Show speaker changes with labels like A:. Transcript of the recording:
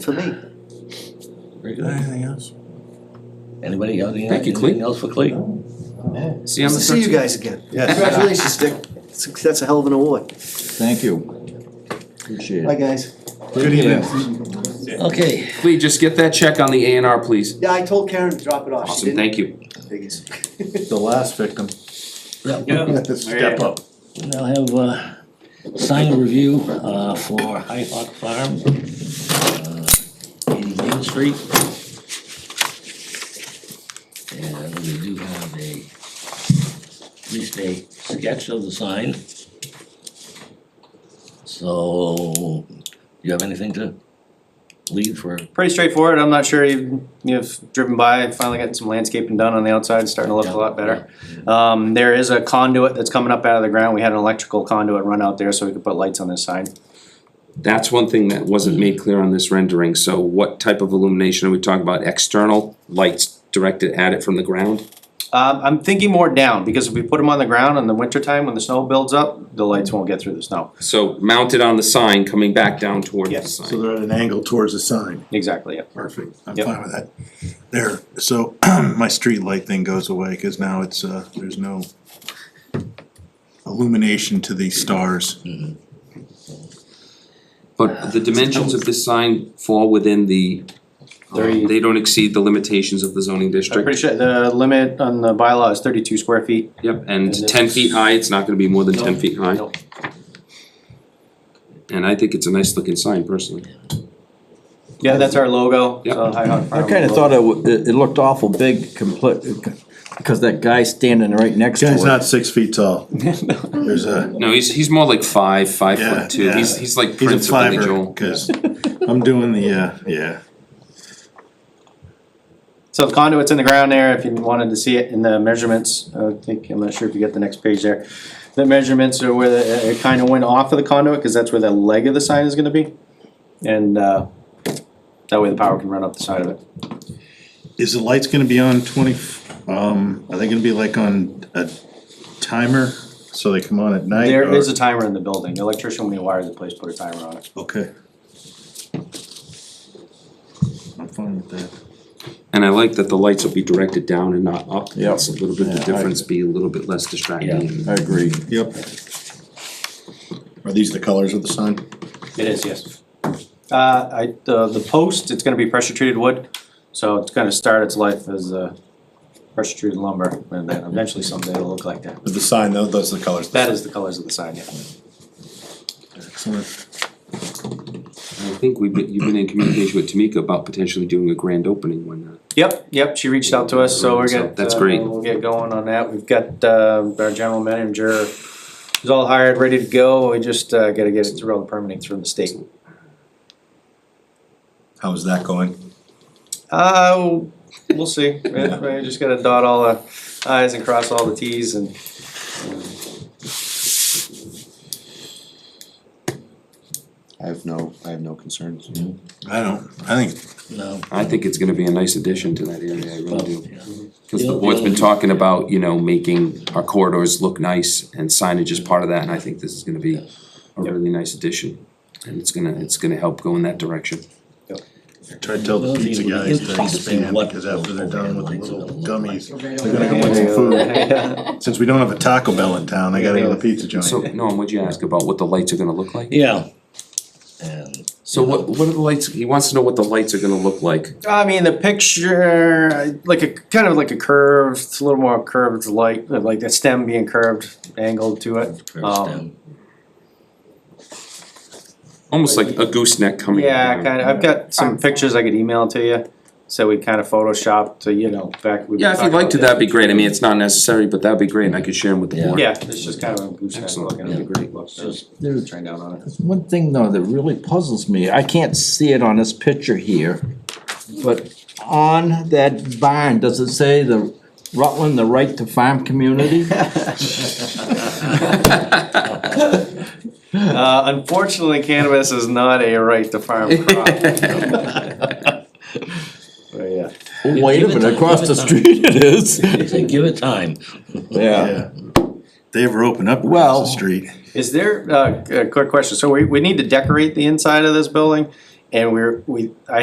A: for me.
B: Very good.
A: Anything else?
B: Anybody got any-
C: Thank you, Cleve.
B: anything else for Cleve?
C: See you on the
A: See you
C: thirteenth.
A: guys again. Congratulations, Dick. It's- That's a hell of an award.
B: Thank you. Appreciate
A: Bye, guys.
B: Good evening. Okay,
C: Lee, just get that check on the A and R, please.
A: Yeah, I told Karen to drop it off. She
C: Awesome,
A: didn't.
C: thank you.
A: Biggest.
D: The last victim.
B: yeah,
D: Step up.
B: I'll have uh sign a review uh, for High Hawk Farm, uh, 80 Main Street. And we do have a, at least a sketch of the sign. So, you have anything to lead for?
E: pretty straightforward. I'm not sure you've, you've driven by, finally getting some landscaping done on the outside, it's starting to look a lot better. Um, there is a conduit that's coming up out of the ground. We had an electrical conduit run out there so we could put lights on this sign.
C: That's one thing that wasn't made clear on this rendering, so what type of illumination are we talking about? External lights directed at it from the ground?
E: Um, I'm thinking more down because if we put them on the ground in the wintertime when the snow builds up, the lights won't get through the snow.
C: So mounted on the sign, coming back down toward the
E: Yes.
D: So
C: sign.
D: they're at an angle towards the sign.
E: Exactly, yeah.
D: Perfect. I'm
E: Yep.
D: fine with that. There, so my street light thing goes away because now it's, uh, there's no illumination to the stars.
C: But the dimensions of this sign fall within the, uh,
E: Thirty-
C: they don't exceed the limitations of the zoning
E: I'm pretty
C: district.
E: sure the limit on the bylaw is thirty-two square feet.
C: Yep,
E: And
C: and
E: this-
C: ten feet high, it's not gonna be more than ten feet high.
E: Nope.
C: And I think it's a nice looking sign personally.
E: Yeah, that's our logo.
C: Yep.
F: I kinda thought it, w- it, it looked awful big, complete, because that guy standing right next to
D: Guy's
F: it.
D: not six feet tall. There's a,
C: No, he's he's more like five, five
D: yeah,
C: foot two.
D: yeah.
C: He's he's like
D: He's a
C: Prince of Billy
D: fiver,
C: Joel.
D: Cause I'm doing the, uh, yeah.
E: So the conduit's in the ground there, if you wanted to see it in the measurements, I would think, I'm not sure if you get the next page there. The measurements are where the- it kind of went off of the conduit, because that's where the leg of the sign is gonna be. And, uh, that way the power can run up the side of it.
D: Is the lights gonna be on twenty, um, are they gonna be like on a timer? So they come on at night?
E: There
D: or-
E: is a timer in the building, the electrician, when he wires the place, put a timer on it.
D: Okay. I'm fine with that.
C: And I like that the lights will be directed down and not up.
F: Yep.
C: It's a little bit the
D: Yeah, I-
C: difference, be a little bit less distracting.
F: I agree.
D: Yep. Are these the colors of the sign?
E: It is, yes. Uh, I, the, the post, it's gonna be pressure treated wood, so it's gonna start its life as, uh, pressure treated lumber, and then eventually someday it'll look like that.
D: The sign, though, those are the colors.
E: That is the colors of the sign, yeah.
D: Excellent.
C: I think we've been, you've been in communication with Tamika about potentially doing a grand opening when uh,
E: Yep, yep, she reached out to us, so we're
C: So
E: gonna.
C: that's great.
E: We'll get going on that, we've got, uh, our general manager is all hired, ready to go, we just, uh, gotta get it through all the permitting through the state.
D: How is that going?
E: Uh, we'll see, I, I just gotta dot all the i's and cross all the t's and.
G: I have no, I have no concerns.
D: I don't, I think,
B: No.
C: I think it's gonna be a nice addition to that area, I really do.
B: Yeah.
C: Cause the board's been talking about, you know, making our corridors look nice and signage is part of that, and I think this is gonna be a really nice addition. And it's gonna, it's gonna help go in that direction.
D: try to tell the pizza guys to expand, because after they're done with the little gummies, they're gonna go want some food. Since we don't have a Taco Bell in town, I gotta go to the pizza
C: So,
D: joint.
C: Norm, what'd you ask about what the lights are gonna look like?
B: Yeah. And
C: So what, what are the lights, he wants to know what the lights are gonna look like.
E: I mean, the picture, I- like a, kind of like a curved, a little more curved light, like the stem being curved, angled to it.
B: curves
E: Um,
B: down.
C: Almost like a gooseneck coming.
E: Yeah,
C: down.
E: kind of, I've got some pictures I could email to you, so we kind of photoshopped to, you know, back. we were
C: Yeah, if you'd
E: talking
C: like to,
E: about
C: that'd be great. I mean, it's not necessary, but that'd be great, and I could share them with the
B: Yeah.
C: board.
E: Yeah, it's just kind of a gooseneck
C: Excellent,
E: look, and it'd be great look, so
B: Just-
F: There's
E: train down on it.
F: one thing though that really puzzles me, I can't see it on this picture here, but on that barn, does it say the Rutland, the right to farm community?
E: Uh, unfortunately, cannabis is not a right to farm crop. But yeah,
F: Wait a minute, across the street it is.
B: They say, give it time.
F: Yeah,
D: Yeah. They ever open up across
F: Well-
D: the street?
E: is there, uh, a quick question, so we, we need to decorate the inside of this building? And we're, we, I